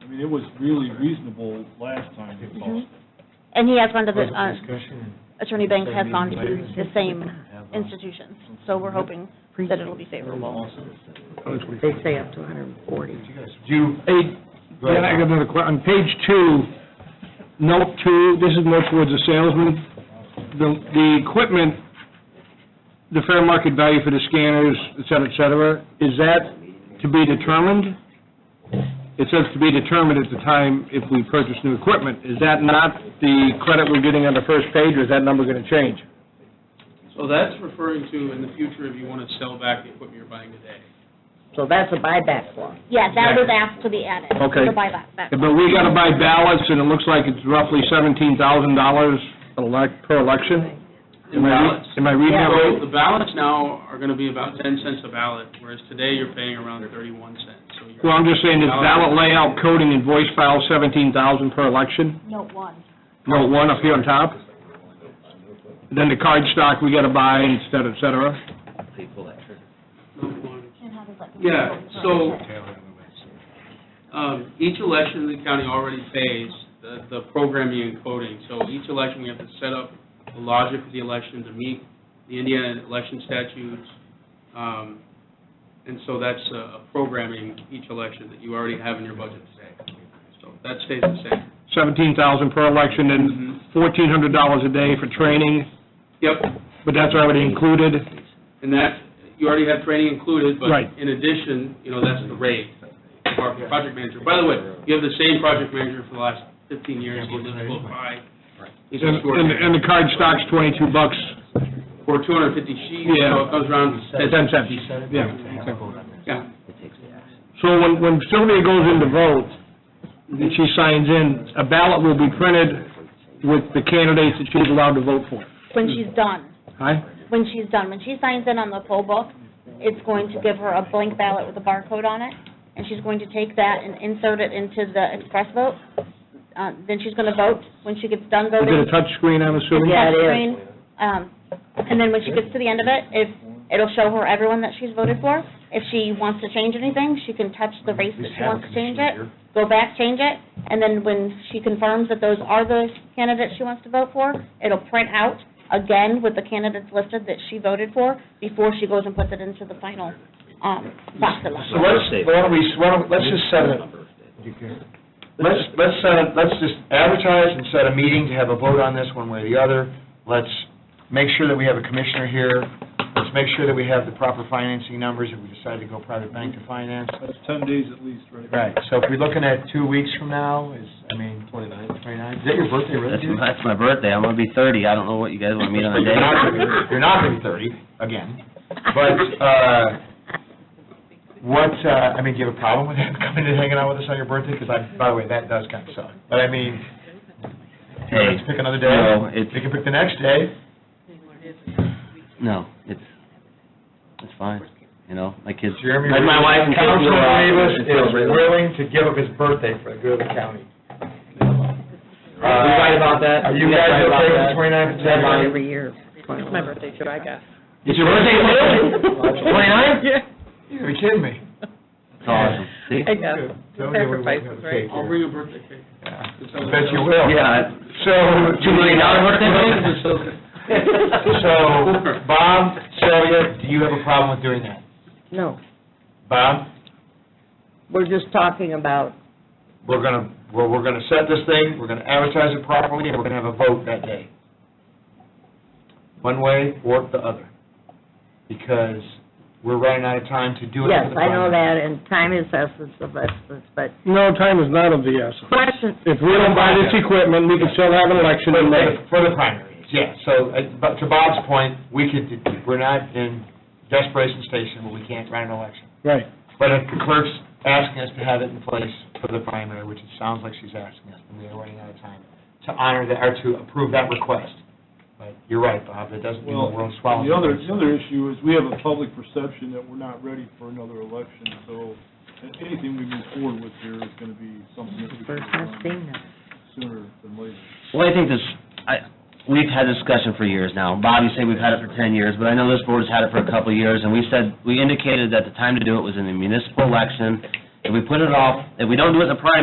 I mean, it was really reasonable last time it Mm-hmm. was. And he has gone to the, Further uh, discussion? Attorney Banks has gone to the same institutions, so we're hoping that it'll be favorable. They say up to hundred and forty. Do you, hey, Dan, I got another question. On page two, note two, this is more towards the salesman. The, the equipment, the fair market value for the scanners, et cetera, et cetera, is that to be determined? It says to be determined at the time if we purchase new equipment. Is that not the credit we're getting on the first page, or is that number going to change? So that's referring to in the future if you want to sell back the equipment you're buying today. So that's a buyback law. Yeah, that was asked to be added, Okay. the buyback. back. But we got to buy ballots, and it looks like it's roughly seventeen thousand dollars per election? In Am I re- ballots. Am I reading that So right? the ballots now are going to be about ten cents a ballot, whereas today you're paying around thirty-one cents. So you're- Well, I'm just saying, this ballot layout coding and voice file, seventeen thousand per election, Note one. no one up here on top. Then the card stock we got to buy, et cetera, et cetera. Yeah, so, um, each election the county already pays the, the programming and coding. So each election, we have to set up the logic of the election to meet the Indiana election statutes. Um, and so that's uh, a programming each election that you already have in your budget today. So that stays the same. Seventeen thousand per election, and fourteen hundred dollars a day for training, Yep, but that's already included. and that, you already have training included, but Right. in addition, you know, that's the rate for our project manager. By the way, you have the same project manager for the last fifteen years, he lives close by. He's And, and extraordinary. and the card stock's twenty-two bucks, For two hundred and fifty sheets, so Yeah. it comes around to ten cents, yeah. Yeah, So when, when Sylvia goes in to vote, and she signs in, a ballot will be printed with the candidates that she's allowed to vote for, When she's done, right? when she's done, when she signs in on the poll book, it's going to give her a blank ballot with a barcode on it, and she's going to take that and insert it into the express vote. Uh, Then she's going to vote. When she gets done Is it voting, a touch screen? I'm assuming? Yeah, it is. touchscreen, um, and then when she gets to the end of it, if, it'll show her everyone that she's voted for. If she wants to change anything, she can touch the race that she wants to change it, go back, change it, and then when she confirms that those are the candidates she wants to vote for, it'll print out again with the candidates listed that she voted for before she goes and puts it into the final, um, box So election. let's, why don't we, why don't, let's just set a, let's, let's set a, let's just advertise and set a meeting to have a vote on this one way or the other. Let's make sure that we have a commissioner here. Let's make sure that we have the proper financing numbers if we decide to go private bank to finance. That's ten days at least, right? Right, so if we're looking at two weeks from now, is, I mean. Twenty-nine. Twenty-nine, is that your birthday, That's, really? dude? that's my birthday, I'm gonna be thirty, I don't know what you guys want me on a You're not gonna day. be- You're not gonna be thirty, again. But, uh, what, uh, I mean, do you have a problem with him coming and hanging out with us on your birthday? Because I, by the way, that does kind of suck. But I mean, you know, Hey, let's pick another day. no, it's- We can pick the next day. No, it's, it's fine, you know, my kids, Jeremy. like my wife and kids. Councilman Rivas It's is celebrated. willing to give up his birthday for the good of the county. Are we right about that? Are you We guys right about okay with the that? twenty-ninth of That's January? every year. It's my birthday. It's your birthday, Lily? Twenty-ninth? You gotta be kidding me. It's awesome, see? Sacrifices, right? I'll bring a birthday cake. I bet you will. Yeah, So. Two million dollar birthday cake? So, Bob, Sylvia, do you have a problem with doing that? No, Bob, we're just talking about, we're gonna, well, we're gonna set this thing, we're gonna advertise it properly, and we're gonna have a vote that day. One way or the other, because we're running out of time to do it. yes, for the I know primary. that, and time is essence of essence, but No, time is not of the essence. question, If we don't buy this equipment, we can still have an election For and let the- For the primaries, yeah, so, uh, but to Bob's point, we could, we're not in desperation station, where we can't run an election. Right. But if the clerk's asking us to have it in place for the primary, which it sounds like she's asking us, and we are running out of time, to honor that, or to approve that request. But you're right, Bob, it doesn't mean the Well, world swallows. the other, the other issue is we have a public perception that we're not ready for another election, so anything we move forward with here is gonna be something that we first should time have done seeing that. sooner than later. Well, I think this, I, we've had this discussion for years now. Bobby said we've had it for ten years, but I know this board's had it for a couple of years, and we said, we indicated that the time to do it was in the municipal election. If we put it off, if we don't do it in the primary,